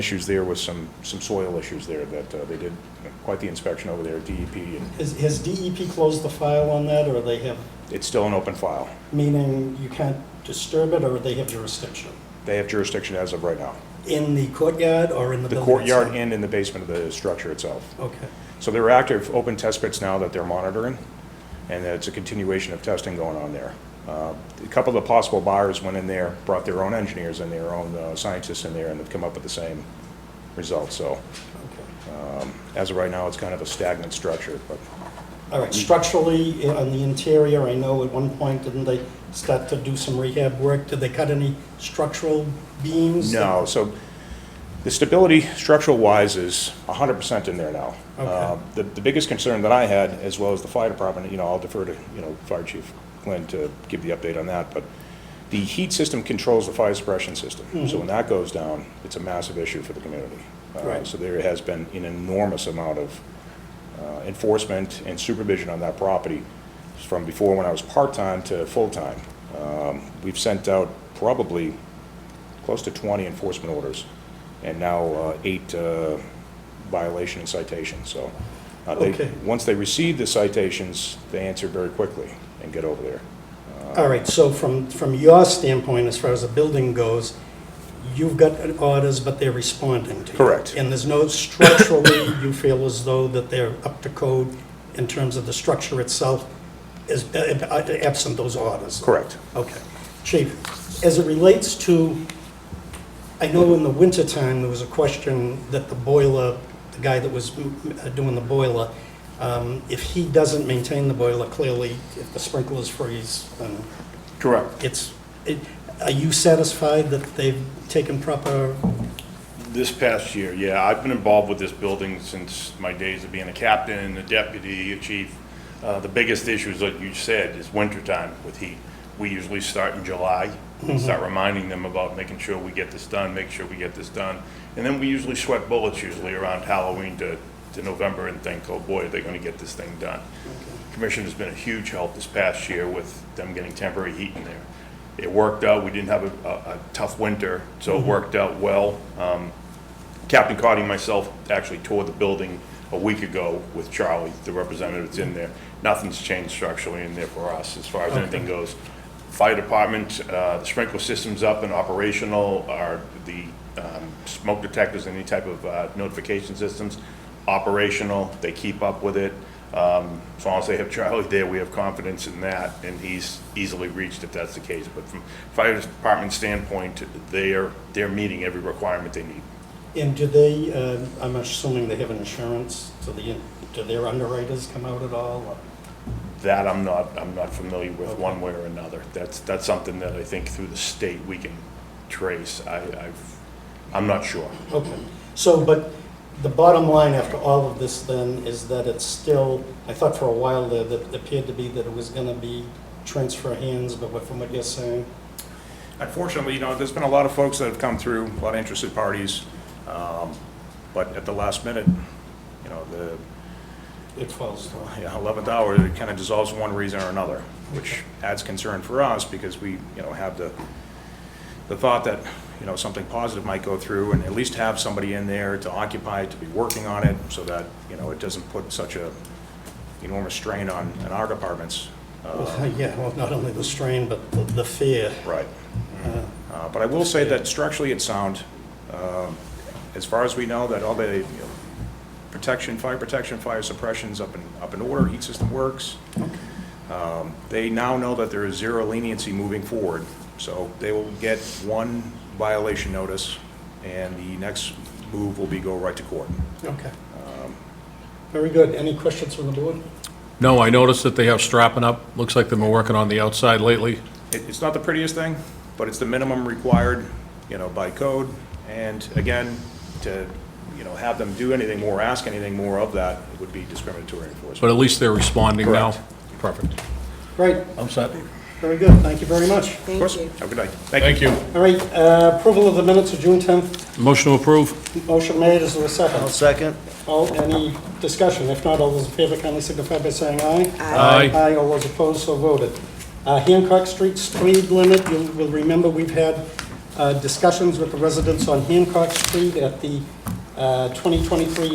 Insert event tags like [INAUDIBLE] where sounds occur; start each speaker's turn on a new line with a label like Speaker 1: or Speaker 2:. Speaker 1: issues there with some, some soil issues there that uh, they did quite the inspection over there at DEP, and
Speaker 2: Is- Has DEP closed the file on that, or they have,
Speaker 1: it's still an open file.
Speaker 2: meaning you can't disturb it, or they have jurisdiction?
Speaker 1: They have jurisdiction as of right now.
Speaker 2: In the courtyard or in the
Speaker 1: The
Speaker 2: building?
Speaker 1: courtyard
Speaker 2: itself?
Speaker 1: and in the basement of the structure itself.
Speaker 2: Okay.
Speaker 1: So there are active open test pits now that they're monitoring, and it's a continuation of testing going on there. Uh, A couple of the possible buyers went in there, brought their own engineers and their own uh, scientists in there, and have come up with the same results. So
Speaker 2: Okay.
Speaker 1: as of right now, it's kind of a stagnant structure, but
Speaker 2: All right, structurally, i- on the interior, I know at one point, didn't they start to do some rehab work? Did they cut any structural beams?
Speaker 1: No, so the stability structural wise is hundred percent in there now.
Speaker 2: Okay.
Speaker 1: Uh, The, the biggest concern that I had, as well as the fire department, you know, I'll defer to, you know, Fire Chief Glenn to give the update on that, but the heat system controls the fire suppression system.
Speaker 2: Mm-hmm.
Speaker 1: So when that goes down, it's a massive issue for the community. Uh,
Speaker 2: Right.
Speaker 1: So there has been an enormous amount of uh, enforcement and supervision on that property from before when I was part-time to full-time. Um, We've sent out probably close to 20 enforcement orders, and now uh, eight uh, violation and citations, so. uh, they-
Speaker 2: Okay.
Speaker 1: Once they receive the citations, they answer very quickly and get over there.
Speaker 2: All right, so from, from your standpoint, as far as the building goes, you've got orders, but they're responding to you.
Speaker 1: Correct.
Speaker 2: And there's no structurally, you feel as though that they're up to code in terms of the structure itself, is uh, uh, absent those orders?
Speaker 1: Correct.
Speaker 2: Okay. Chief, as it relates to, I know in the wintertime, there was a question that the boiler, the guy that was mm, uh, doing the boiler, um, if he doesn't maintain the boiler, clearly, if the sprinklers freeze, then
Speaker 3: Correct.
Speaker 2: it's, it- are you satisfied that they've taken proper,
Speaker 3: This past year, yeah, I've been involved with this building since my days of being a captain, a deputy, a chief. Uh, The biggest issue is, like you said, is wintertime with heat. We usually start in July, start reminding them about making sure we get this done, make sure we get this done. And then we usually sweat bullets usually around Halloween to, to November and think, oh boy, are they gonna get this thing done? Commissioner's been a huge help this past year with them getting temporary heat in there. It worked out, we didn't have a, a a tough winter, so it worked out well. Um, Captain Cotty and myself actually toured the building a week ago with Charlie, the representative's in there. Nothing's changed structurally in there for us as far as anything goes. Fire department, uh, the sprinkler system's up and operational, are the um, smoke detectors, any type of uh, notification systems, operational, they keep up with it. Um, As long as they have Charlie there, we have confidence in that, and he's easily reached if that's the case. But from fire department standpoint, they're, they're meeting every requirement they need.
Speaker 2: and do they, uh, I'm assuming they have insurance, so the, do their underwriters come out at all? or-
Speaker 3: That I'm not, I'm not familiar with one way or another. That's, that's something that I think through the state we can trace. I, I've, I'm not sure.
Speaker 2: Okay, so, but the bottom line after all of this then is that it's still, I thought for a while there that it appeared to be that it was gonna be transfer hands, but what- from what you're saying,
Speaker 1: Unfortunately, you know, there's been a lot of folks that have come through, a lot of interested parties, um, but at the last minute, you know, the
Speaker 2: it falls through.
Speaker 1: yeah, 11th hour, it kind of dissolves for one reason or another, which adds concern for us because we, you know, have the, the thought that, you know, something positive might go through and at least have somebody in there to occupy, to be working on it so that, you know, it doesn't put such a enormous strain on, on our departments.
Speaker 2: Well, [LAUGHS] Yeah, well, not only the strain, but the- the fear.
Speaker 1: Right. Uh, But I will say that structurally it's sound. Um, As far as we know, that all the you know, protection, fire protection, fire suppression's up in, up in order, heat system works. Um, They now know that there is zero leniency moving forward, so they will get one violation notice, and the next move will be go right to court.
Speaker 2: Okay. Very good. Any questions from the board?
Speaker 4: No, I noticed that they have strapping up. Looks like they've been working on the outside lately.
Speaker 1: It- It's not the prettiest thing, but it's the minimum required, you know, by code. And again, to, you know, have them do anything more, ask anything more of that, it would be discriminatory
Speaker 4: But
Speaker 1: enforcement.
Speaker 4: at least they're responding now.
Speaker 1: Correct.
Speaker 4: Perfect.
Speaker 2: Great,
Speaker 4: I'm set.
Speaker 2: very good. Thank you very much.
Speaker 1: Of course, have a good night. Thank you.
Speaker 4: Thank you.
Speaker 2: All right, uh, approval of the minutes of June 10th.
Speaker 4: Motion to approve?
Speaker 2: Motion made. Is there a second?
Speaker 5: Second?
Speaker 2: All, any discussion? If not, all those in favor kindly signify by saying aye.
Speaker 4: Aye. Aye.
Speaker 2: Aye, all those opposed, so voted. Uh, Hancock Street speed limit, you will remember we've had um, uh, discussions with the residents on Hancock Street at the uh, 2023